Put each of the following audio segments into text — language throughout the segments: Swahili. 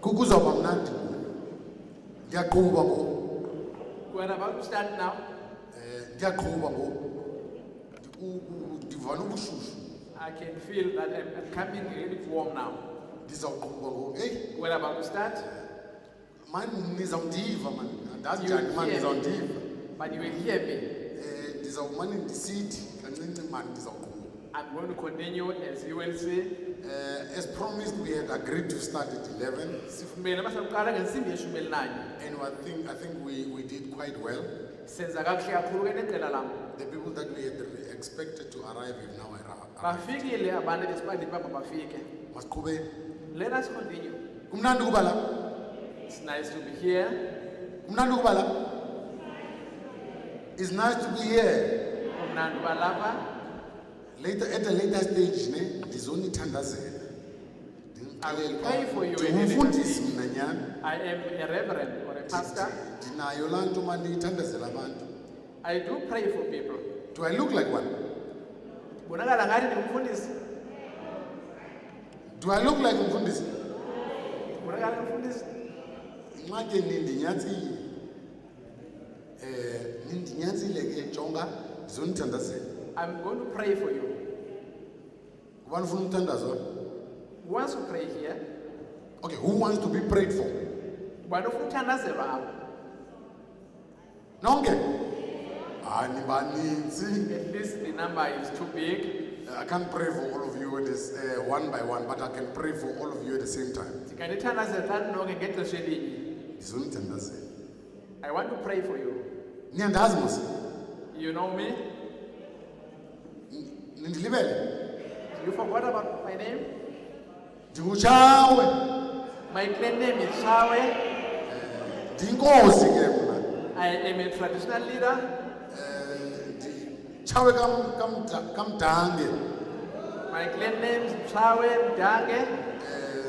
kukuza kwamnandi ndiyaqhuba ngoku We're about to start now. Eh, ndiyaqhuba ngoku Ndi- u- u- ndivala ubushushu I can feel that I'm, I'm coming really warm now. ndizawuqhuba ngoku heyi We're about to start, mani nizawundiva mani andazi You njani mani hear me. nizawundiva but you will hear me. um ndizawumane ndisithi kancinci mani ndizawuqhuba I'm going to continue as you will see. Eh, as promised we had agreed to start at 11 Sifumene masaqala ngensimbi yeshumi elinanye. and I think, I think we, we did quite well Senza kakuhle kakhulu ke neqela lam. the people that we had re- expected to arrive have now Ah. arrived Bafikile abantu besibandile uba mabafike. masiqhubeni Let us continue. kumnandi ukuba lapha It's nice to be here. Mnandi ukuba la. It's nice to be here. Kumnandi uba lapha. Later at a later stage ne ndizonithandazela. I will pray for you in the Ndimfundisi mna nyana. I am a reverend or a pastor. Ndinayo laa nto mani ithandazela abantu. I do pray for people. Do I look like one? Bonakala ngathi ndingumfundisi. Do I look like umfundisi? Bonakala ngumfundisi. Inxaki nindinyatsile. Eh nindinyatsile ke jonga ndizonithandazela. I'm going to pray for you. Kuba ufuna umthandazo? Once you pray here, Okay, who wants to be prayed for? ubani ufuna uthandazelwa apha? Nonke? Hayi nibaninzi. At least the number is too big. Eh, I can't pray for all of you at this, uh, one by one, but I can pray for all of you at the same time. Ndinganithandazela xa ninonke ngexesha elinye. Ndizonithandazela. I want to pray for you. Niyandazi mos? You know me? N- Nindilibele. You forgot about my name? Ndingutshawe. My clan name is Shawe. Ndinkosi ke mna. I am a traditional leader. Eh, nditshawe kam- kamda- kamdange. My clan name is Shawe Mdange. Eh,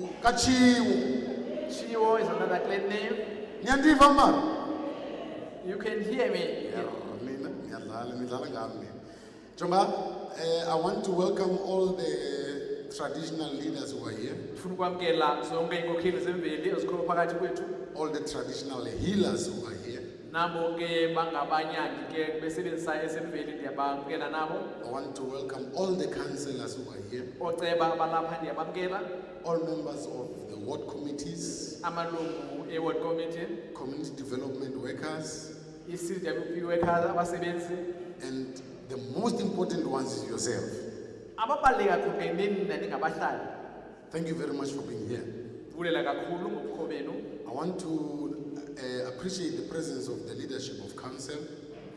u- katshiwo. Chiwo is another clan name. Niyandiva mani? You can hear me. Mina niyadlala nidlala ngami mina. Jonga, eh, I want to welcome all the traditional leaders who are here. Ndifuna ukwamkela zonke iinkokheli zemveli ezikhoyo phakathi kwethu. all the traditional healers who are here. Nabo ke bangabanyangi ke besebenzisa esemveli ndiyabamkela nabo. I want to welcome all the councillors who are here, Ooceba abalapha ndiyabamkela. all members of the ward committees, Amalungu e-ward committee, community development workers, i-CWP workers abasebenzi. and the most important ones is yourself. Ababaluleke kakhulu ke nini nandingabahlali. Thank you very much for being here. Ndibulela kakhulu ngobukho benu. I want to uh, appreciate the presence of the leadership of council,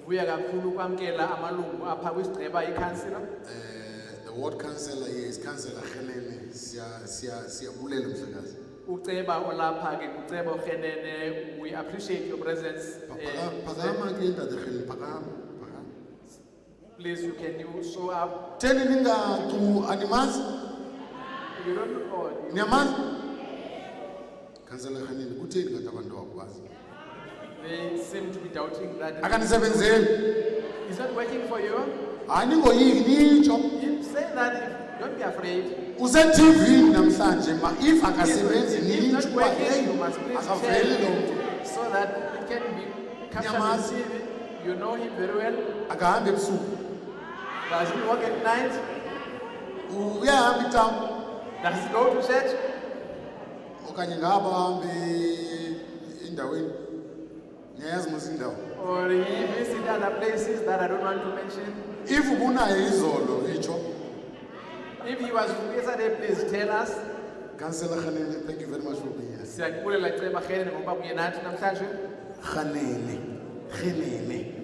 vuya kakhulu kwamkela amalungu apha kwisigceba ikhansila uh, the ward councillor here is Councillor Helene Siya Siya Siyabulela Mhlekazi. uceba olapha ke uceba urhenene we appreciate your presence Pa- eh, phaka- Phakama ke ntate Helen phakama phakama. please you can you show up Teni ningacu animazi? you don't oh, you- Niyamazi? Councillor Khanini kutheni ngathi abantu bakwazi? they seem to be doubting that Akanisebenzeli. it's not working for you Hayi ningoyiki nitsho. you say that don't be afraid Use TV namhlanje ma if akasebenzi If it's nitsho not ba working, hey you must please akaveli lo tell. mntu. so that it can be captured on Nyamazi. TV you know him very well Akahambi ebusuku. does he work at night Uyahamba itawu does he go to church okanye ngaba hambe endaweni. Niyayazi mos indawo. or he visit other places that I don't want to mention If ubunayo izolo itsho. If he was yesterday, please tell us. Councillor Khanini thank you very much for being here. Siyakubulela ceba ngene ngoba kunye nathi namhlanje. Khanini. Khanini.